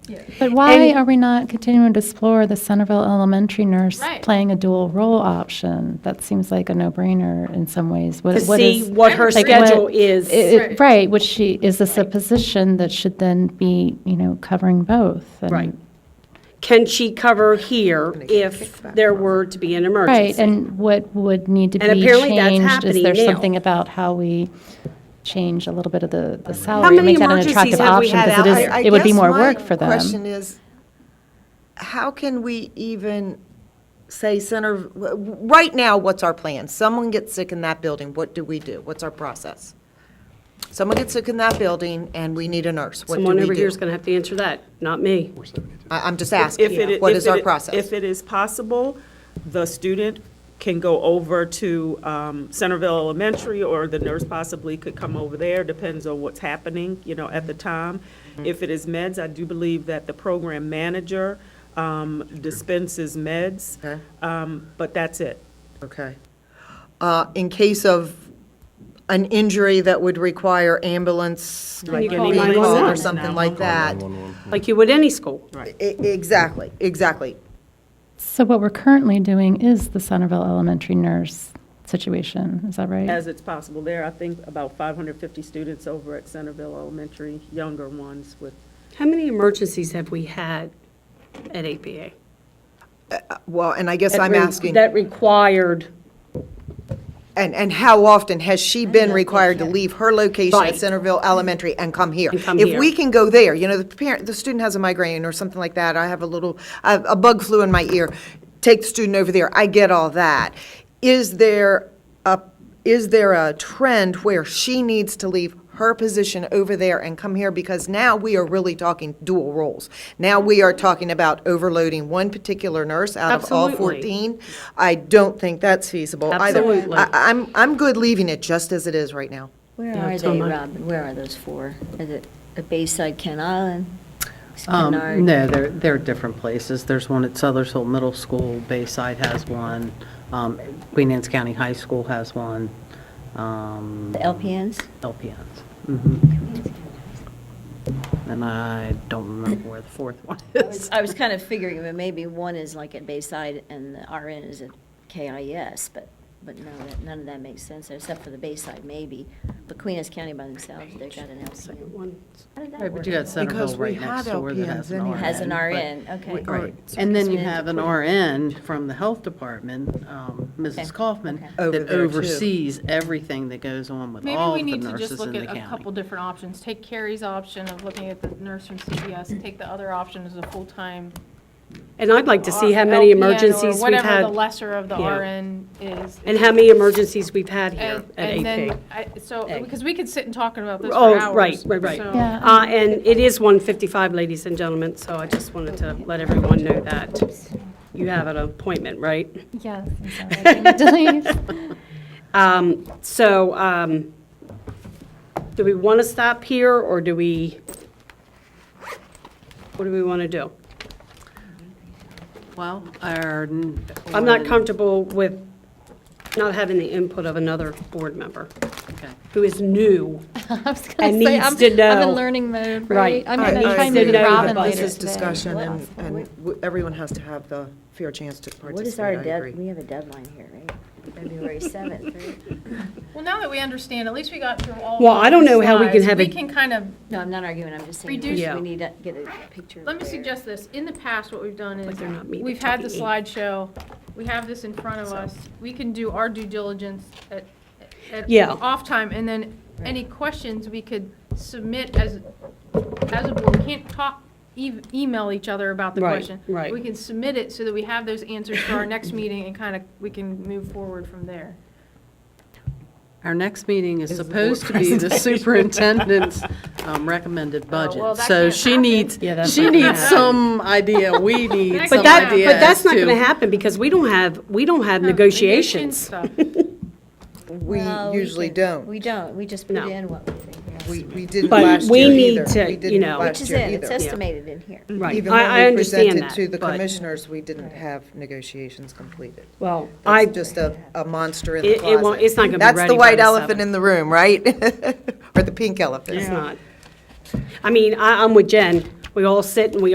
Yeah. But why And- are we not continuing to explore the Centerville elementary nurse Right. playing a dual role option? That seems like a no-brainer in some ways. What- to what see is- what her like, schedule what- is. i- i- Right. Right, which she, is this a position that should then be, you know, covering both? And- Right. Can she cover here if there were to be an Right, emergency? and what would need to be And apparently that's changed? Is there happening now. something about how we change a little bit of the the How salary? to many make that an emergencies attractive have we option had because out is- there? I- I It would be guess more my work for them. Question is, how can we even say center, w- w- right now, what's our plan? Someone gets sick in that building, what do we do? What's our process? Someone gets sick in that building and we need a nurse, what do Someone over we here do? is going to have to answer that, not me. I, I'm just If it- asking, what if is our it- If process? it is possible, the student can go over to um, Centerville Elementary, or the nurse possibly could come over there, depends on what's happening, you know, at the time. If it is meds, I do believe that the program manager um, dispenses meds, Okay. um, but that's it. Okay. Uh, in case of an injury that would require ambulance, Like like you call being called 911. or something like that. Like you would any school. E- Exactly, exactly. So what we're currently doing is the Centerville Elementary nurse situation, is that right? As it's possible there, I think about 550 students over at Centerville Elementary, younger ones with How many emergencies have we had at APA? Uh, Well, and I guess I'm That re- asking. That required, And, and how often has she been required to leave her location Right. at Centerville Elementary and come here? And come If here. we can go there, you know, the parent, the student has a migraine or something like that, I have a little, a a bug flew in my ear, take the student over there, I get all that. Is there a, is there a trend where she needs to leave her position over there and come here? Because now we are really talking dual roles. Now we are talking about overloading one particular nurse out of all Absolutely. 14. I don't think that's feasible either. Absolutely. I- I'm, I'm good leaving it just as it is right now. Where Yeah, are so they, much. Robin? Where are those four? Is it at Bayside, Ken Island? Is Um, Kennard- No, they're, they're different places. There's one at Southers Hill Middle School, Bayside has one, um, Queen Anne's County High School has one, um, The LPNs? LPNs. Mhm. And I don't remember where the fourth one I is. was- I was kind of figuring, that maybe one is like at Bayside and the RN is at KIS, but, but no, that- none of that makes sense, except for the Bayside maybe. But Queen Anne's County by themselves, they've got an LPN. How did that Right, but work? you got Because Centerville we right had next door that has an LPNs RN. anyway. Has an but- RN, okay. Right, So and then because you we need have to an put- RN from the Health Department, um, Okay, Mrs. Kaufman, okay. Over that there, too. oversees everything that goes on with Maybe all we of the need to just nurses in look the at a couple county. different options. Take Carrie's option of looking at the nurse from CPS, take the other option as a full-time. and I'd like to see how many LPN or emergencies we've Whatever the had, lesser of the Yeah. RN is. and how many emergencies we've had here And and at then, AP. I- so, because we could sit and talk about this Oh, for hours. right, right, right. so- Yeah. Uh, And it is 1:55, ladies and gentlemen, so I just wanted to let everyone know that. You have an appointment, right? Yes. I'm sorry, I didn't- Um, So um, do we want to stop here, or do we, what do we want to do? Well, our. I'm not comfortable with not having the input of another board member who is new. I was gonna And say, needs I'm- to I'm know. in learning mode, Right. right? I'm Right, gonna try needs to and move know that Robin This later is today. discussion, and, What- and w- everyone has to have the fair chance to What is our participate, I dead, agree. we have a deadline here, right? February 7th, right? Well, now that we understand, at least we got through all. Well, I don't know how we slides. can have We a- can kind of No, I'm not arguing, I'm just saying, Reduce- we Yeah. we need to get a picture of Let me where- suggest this, in the past, what we've done But is, they're not meeting we've had the till the slideshow, we have this in front of us, we can do our due diligence at, at Yeah. off time, and then any questions we could submit as, as a board, we can't talk, e- email each other about the Right, question. right. We can submit it so that we have those answers for our next meeting and kind of, we can move forward from there. Our next meeting is supposed to be the superintendent's um, recommended well, budget. that So can't she happen. needs, Yeah, that's she not gonna needs some idea, we need That some But can't that, happen. ideas but that's not going to to- happen because we don't have, we don't have negotiations. Negotiation stuff. We Well, usually can- don't. We don't, we just put No. in what we think. We, we didn't But last we year need either. to, We you didn't know- Which last is year in, it's either. estimated in here. Right, Even I, I when we understand presented that. to the but- commissioners, we didn't have negotiations completed. Well, I, That's just a, a monster in the It- it won't- closet. it's not gonna be That's ready the by white the elephant seventh. in the room, right? Or the pink elephant. it's not. I mean, I, I'm with Jen. We all sit and we